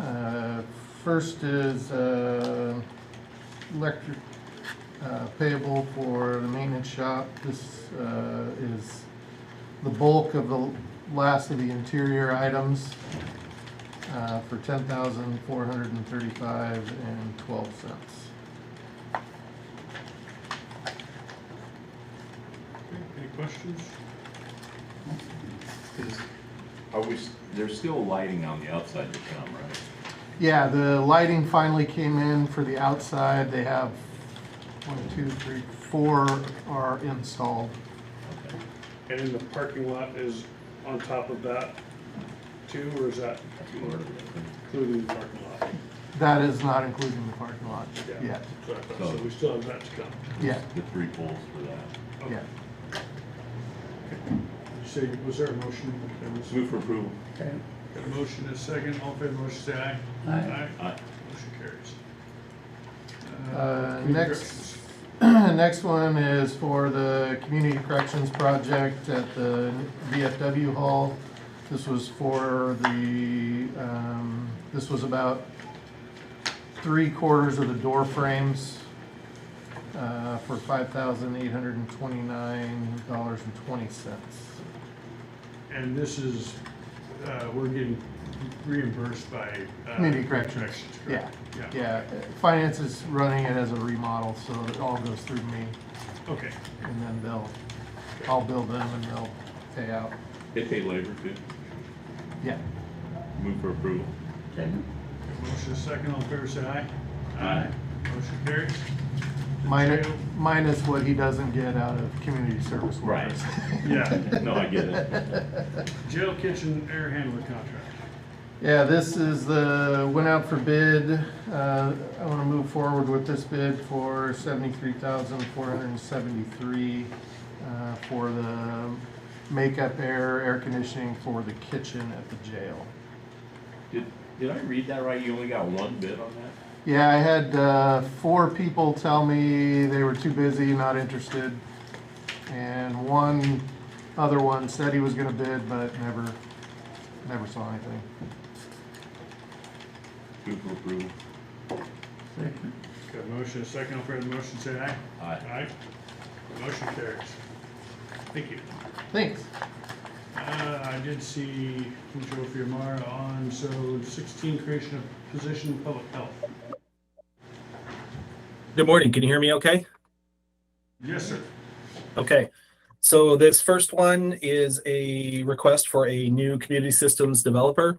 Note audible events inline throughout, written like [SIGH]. Uh, First is uh, electric uh, payable for the maintenance shop. This uh, is the bulk of the last of the interior items uh, for ten thousand four hundred and thirty-five and twelve cents. Any questions? Is- Are we, s- there's still lighting on the outside to come, right? Yeah, the lighting finally came in for the outside. They have one, two, three, four are installed. Okay. And then the parking lot is on top of that too, or is that That's part of it, I including the parking lot? That is not including the parking lot Yeah. yet. So I thought- So we still have that to come. Yeah, think. The three poles for that. Okay. yeah. So was there a motion? There was- Move for approval. Okay, Got a motion and a second, all in favor, motion say aye. Aye. Aye. Motion carries. Uh, community next- [CLEARS THROAT] corrections. Next one is for the Community Corrections Project at the VFW Hall. This was for the, um, this was about three quarters of the door frames uh, for five thousand eight hundred and twenty-nine dollars and twenty cents. And this is, uh, we're getting reimbursed by. uh, Community Corrections, yeah, correct? yeah. Finance is running it as a remodel, so it all goes through me, Okay, and then they'll, I'll bill them and they'll pay out, They pay labor too. yeah. Move for approval. second, Got a motion and a second, all in favor, say aye. Aye. Motion carries. Minus, Jail. minus what he doesn't get out of community service Right. workers. [LAUGHS] Yeah. No, I get it. Jail kitchen air handler contract. Yeah, this is the, went out for bid, uh, I wanna move forward with this bid for seventy-three thousand four hundred and seventy-three, uh, for the makeup air, air conditioning for the kitchen at the jail. Did, did I read that right? You only got one bid on that? Yeah, I had, uh, four people tell me they were too busy, not interested. And one other one said he was gonna bid, but never, never saw anything. Move for approval. second, Got a motion, and a second, all in favor of the motion, say aye. Aye. Aye. Motion carries. Thank you. Thanks. Uh, I did see from Joe Fiamara on, so sixteen, creation of position in public health. Good morning. Can you hear me okay? Yes, sir. Okay. So this first one is a request for a new community systems developer.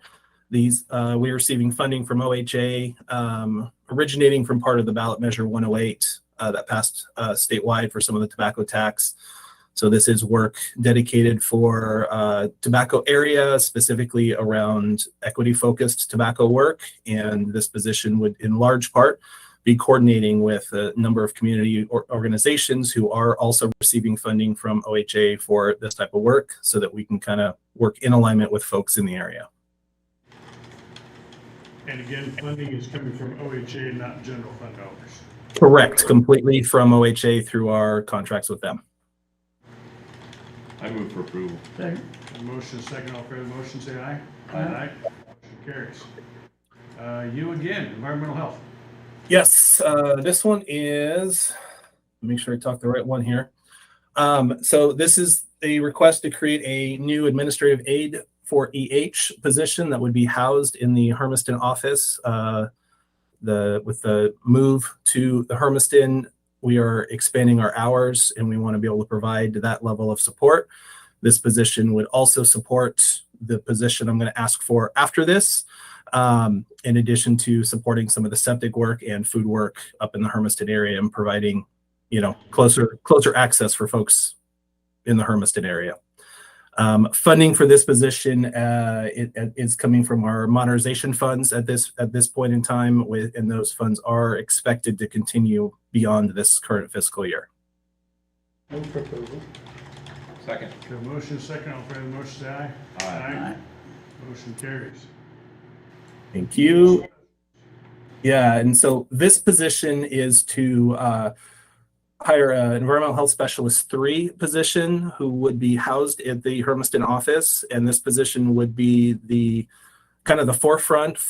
These, uh, we are receiving funding from OHA, um, originating from part of the ballot measure 108 uh, that passed uh, statewide for some of the tobacco tax. So this is work dedicated for uh, tobacco area, specifically around equity-focused tobacco work. And this position would, in large part, be coordinating with a number of community or organizations who are also receiving funding from OHA for this type of work so that we can kind of work in alignment with folks in the area. And again, funding is coming from OHA, not general fund dollars. Correct. Completely from OHA through our contracts with them. I move for approval. second, Got a motion, and a second, all in favor of the motion, say aye. Aye. Motion carries. Uh, you again, environmental health. Yes, uh, this one is, make sure I talk the right one here. Um, so this is a request to create a new administrative aid for EH position that would be housed in the Hermiston office. Uh, the, with the move to the Hermiston, we are expanding our hours and we want to be able to provide that level of support. This position would also support the position I'm going to ask for after this um, in addition to supporting some of the septic work and food work up in the Hermiston area and providing, you know, closer closer access for folks in the Hermiston area. Um, funding for this position uh, it- it is coming from our modernization funds at this at this point in time, with and those funds are expected to continue beyond this current fiscal year. Move proposal. Second. Got a motion, and a second, all in favor of the motion, say aye. Aye. Aye. Motion carries. Thank you. Yeah, and so this position is to uh, hire an environmental health specialist three position who would be housed at the Hermiston office, and this position would be the kind of the forefront